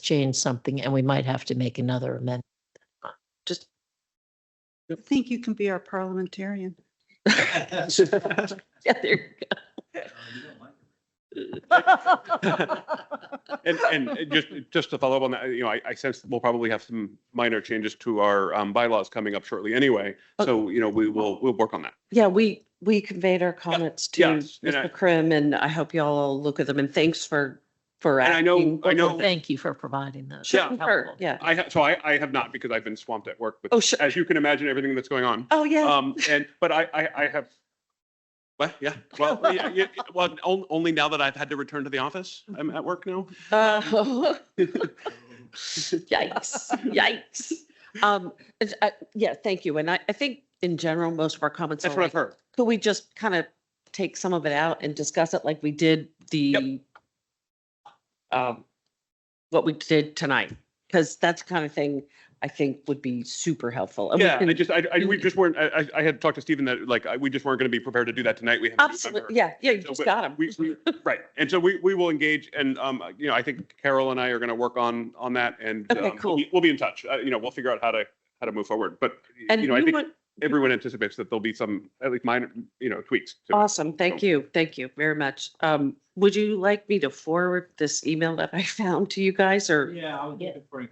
change something and we might have to make another amendment. Just. I think you can be our parliamentarian. Yeah, there you And, and it just, just to follow up on that, you know, I, I sense we'll probably have some minor changes to our um, bylaws coming up shortly anyway. So, you know, we will, we'll work on that. Yeah, we, we conveyed our comments to yes, and I- Mr. Krim and I hope y'all all look at them and thanks for, for. And I know- asking. I go. know- Thank you for providing those. Yeah. Sure, Yeah. I, ha- so I, I have not because I've been swamped at work with, Oh, sure. as you can imagine, everything that's going on. Oh, yeah. Um, and, but I, I, I have, what, yeah, well, yeah, yeah, well, on- only now that I've had to return to the office, I'm at work now. Uh, Yikes, yikes. Um, it's- I- yeah, thank you. And I, I think in general, most of our comments. That's are what I've like, heard. Could we just kind of take some of it out and discuss it like we did the um, what we did tonight? Because that's the kind of thing I think would be super helpful. and we Yeah, I can- just, I, I, you we can- just weren't, I, I- I had talked to Stephen that like, I- we just weren't going to be prepared to do that tonight. We have. Absolutely, yeah, yeah, you So, just but got them. We, we- right, and so we, we will engage, and, um, you know, I think Carol and I are gonna work on, on that, and. Okay, um, we'll cool. be- We'll be in touch, uh, you know, we'll figure out how to, how to move forward, but, And you you know, I think would, everyone anticipates that there'll be some, at least minor, you know, tweaks. to it. awesome, thank you, thank you very much. Um, would you like me to forward this email that I found to you guys or? Yeah, I was Yeah. looking for it.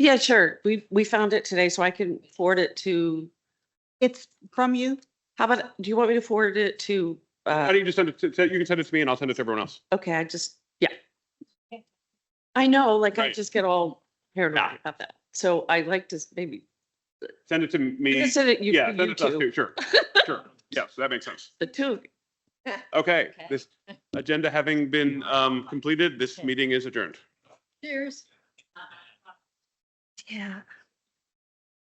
Yeah, sure, we, we found it today, so I can forward it to, It's from you. how about, do you want me to forward it to? How Uh, do you just send it, to- to- you can send it to me and I'll send it to everyone else. okay, I just, yeah. I know, like I Right. just get all paranoid about that, so I like to s- maybe, Send it to me, you can send it, you, yeah, send you it to us two, too, sure, sure, yeah, so that makes sense. the two, of you. Okay, Okay. this agenda having been, um, completed, this meeting is adjourned. Cheers. Yeah.